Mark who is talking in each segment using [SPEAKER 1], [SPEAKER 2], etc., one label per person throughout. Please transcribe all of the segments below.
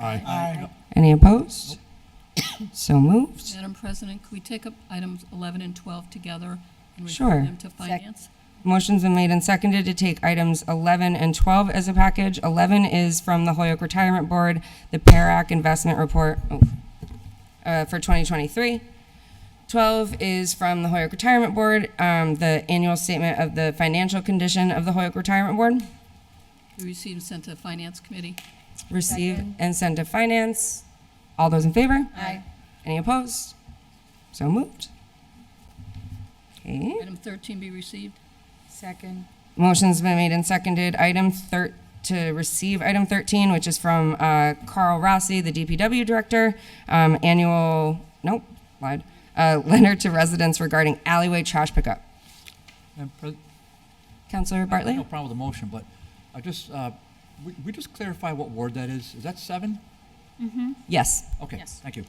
[SPEAKER 1] Aye.
[SPEAKER 2] Any opposed? So moved.
[SPEAKER 3] Madam President, could we take up items 11 and 12 together and
[SPEAKER 2] Sure.
[SPEAKER 3] refer them to finance?
[SPEAKER 2] Motion's been made and seconded to take items 11 and 12 as a package. 11 is from the Hoyok Retirement Board, the PARAC Investment Report oh, uh, for 2023. 12 is from the Hoyok Retirement Board, um, the annual statement of the financial condition of the Hoyok Retirement Board.
[SPEAKER 3] We received and sent to the Finance Committee.
[SPEAKER 2] Receive and send to finance. All those in favor? Aye. Any opposed? So moved. Okay.
[SPEAKER 3] Item 13 be received.
[SPEAKER 4] Second.
[SPEAKER 2] Motion's been made and seconded. Item thir, to receive item thirteen, which is from, uh, Carl Rossi, the DPW Director, um, annual, nope, lied, uh, letter to residents regarding alleyway trash pickup.
[SPEAKER 1] Madam Pres-
[SPEAKER 2] Counselor
[SPEAKER 1] I have No
[SPEAKER 2] Bartley?
[SPEAKER 1] problem with the motion, but I just, uh, we, we just clarify what ward that is. Is that seven?
[SPEAKER 2] Yes.
[SPEAKER 1] Okay,
[SPEAKER 4] Yes.
[SPEAKER 1] thank you.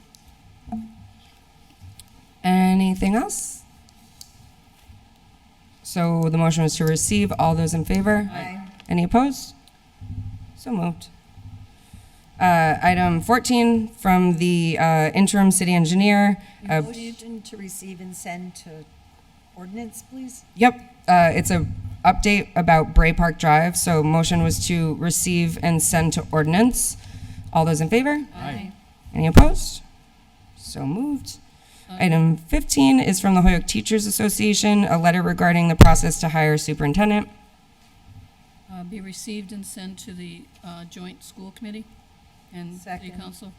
[SPEAKER 2] Anything else? So the motion was to receive. All those in favor?
[SPEAKER 4] Aye.
[SPEAKER 2] Any opposed? So moved. Uh, item fourteen from the, uh, interim city engineer. uh,
[SPEAKER 4] Motion to receive and send to ordinance, please?
[SPEAKER 2] Yep, uh, it's a update about Bray Park Drive, so motion was to receive and send to ordinance. All those in favor?
[SPEAKER 1] Aye.
[SPEAKER 2] Any opposed? So moved. Item fifteen is from the Hoyok Teachers Association, a letter regarding the process to hire superintendent.
[SPEAKER 3] Uh, Be received and sent to the uh, Joint School Committee and City
[SPEAKER 4] Second.
[SPEAKER 3] Council.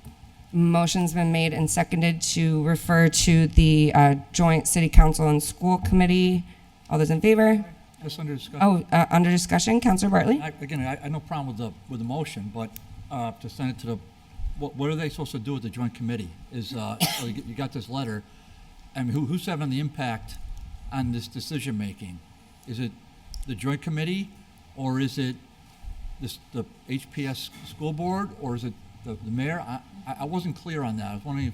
[SPEAKER 2] Motion's been made and seconded to refer to the, uh, joint city council and school committee. All those in favor?
[SPEAKER 1] Just under discussion.
[SPEAKER 2] Oh, uh, under discussion, Counselor Bartley?
[SPEAKER 1] I- Again, I, I have no problem with the, with the motion, but, uh, to send it to the, what, what are they supposed to do with the joint committee? Is, uh, so you you got this letter, I mean, who, who's having the impact on this decision-making? Is it the joint committee, or is it this, the HPS school board, or is it the, the mayor? I, I- I wasn't clear on that. I was wondering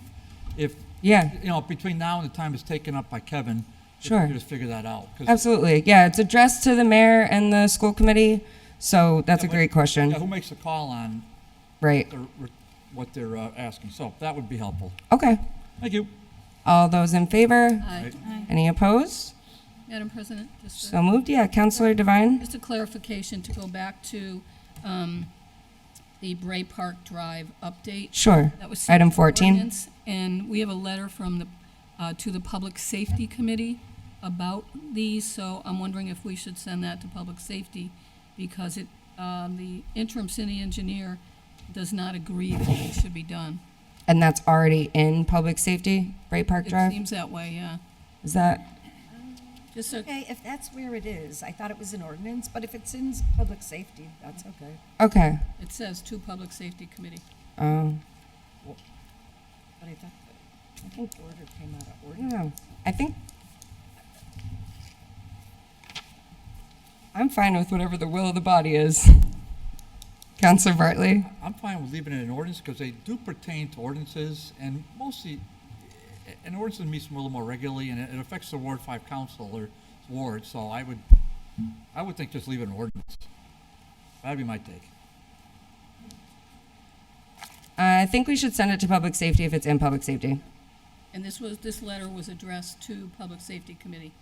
[SPEAKER 1] if, if,
[SPEAKER 2] Yeah.
[SPEAKER 1] you know, between now and the time it's taken up by Kevin, if
[SPEAKER 2] Sure.
[SPEAKER 1] you just figure that out. 'cause-
[SPEAKER 2] Absolutely. Yeah, it's addressed to the mayor and the school committee. So that's a great
[SPEAKER 1] Yeah,
[SPEAKER 2] question.
[SPEAKER 1] who makes the call on
[SPEAKER 2] Right.
[SPEAKER 1] their- what they're uh, asking, so that would be helpful.
[SPEAKER 2] Okay.
[SPEAKER 1] Thank you.
[SPEAKER 2] All those in favor?
[SPEAKER 3] Aye.
[SPEAKER 2] Any opposed?
[SPEAKER 3] Madam President, just
[SPEAKER 2] So
[SPEAKER 3] a-
[SPEAKER 2] moved. Yeah, Counselor Devine?
[SPEAKER 3] just a clarification to go back to um, the Bray Park Drive update.
[SPEAKER 2] Sure.
[SPEAKER 3] That was
[SPEAKER 2] Item
[SPEAKER 3] sent to
[SPEAKER 2] 14.
[SPEAKER 3] ordinance, And we have a letter from the, uh, to the Public Safety Committee about these, so I'm wondering if we should send that to Public Safety because it, um, the interim city engineer does not agree that it should be done.
[SPEAKER 2] And that's already in public safety, Bray Park
[SPEAKER 3] It
[SPEAKER 2] Drive?
[SPEAKER 3] seems that way, yeah.
[SPEAKER 2] Is that,
[SPEAKER 3] Just so,
[SPEAKER 4] Okay, if that's where it is, I thought it was an ordinance, but if it's in public safety, that's okay.
[SPEAKER 2] okay.
[SPEAKER 3] it says to Public Safety Committee.
[SPEAKER 2] Um,
[SPEAKER 4] But I thought, the- I think the order came out of
[SPEAKER 2] I don't
[SPEAKER 4] ordinance.
[SPEAKER 2] know. I think I'm fine with whatever the will of the body is. Counselor Bartley?
[SPEAKER 1] I'm fine with leaving it in ordinance, because they do pertain to ordinances, and mostly, an ordinance meets a little more regularly, and it it affects the Ward Five Council or ward, so I would, I would think just leave it in ordinance. That'd be my take.
[SPEAKER 2] I think we should send it to public safety if it's in public safety.
[SPEAKER 3] And this was, this letter was addressed to Public Safety Committee.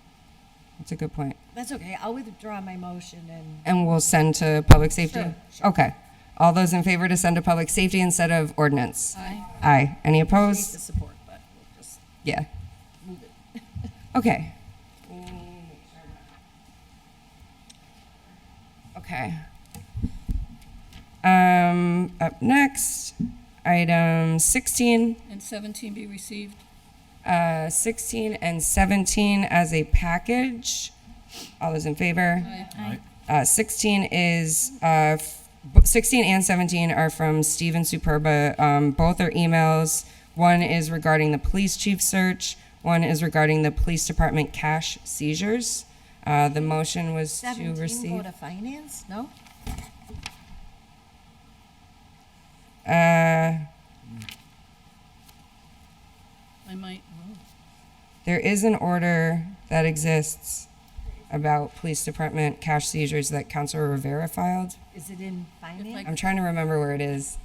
[SPEAKER 2] That's a good point.
[SPEAKER 4] That's okay, I'll withdraw my motion and,
[SPEAKER 2] And we'll send to public safety?
[SPEAKER 4] Sure, sure.
[SPEAKER 2] Okay. All those in favor to send to public safety instead of ordinance?
[SPEAKER 3] Aye.
[SPEAKER 2] Aye. Any
[SPEAKER 4] I hate the
[SPEAKER 2] opposed?
[SPEAKER 4] support, but we'll just
[SPEAKER 2] Yeah.
[SPEAKER 4] move it.
[SPEAKER 2] Okay. Okay. Um, up next, item sixteen,
[SPEAKER 3] And 17 be received.
[SPEAKER 2] uh, sixteen and seventeen as a package. All those in favor?
[SPEAKER 3] Aye.
[SPEAKER 1] Aye.
[SPEAKER 2] Uh, 16 is, uh, f- b- 16 and 17 are from Steven Superba. Um, both are emails. One is regarding the police chief search. One is regarding the police department cash seizures. Uh, the motion was to
[SPEAKER 4] Seventeen go
[SPEAKER 2] receive.
[SPEAKER 4] to finance, no?
[SPEAKER 2] Uh,
[SPEAKER 3] I might, oh,
[SPEAKER 2] there is an order that exists about police department cash seizures that Councilor Rivera filed.
[SPEAKER 4] Is it in finance?
[SPEAKER 2] I'm trying to remember where it is.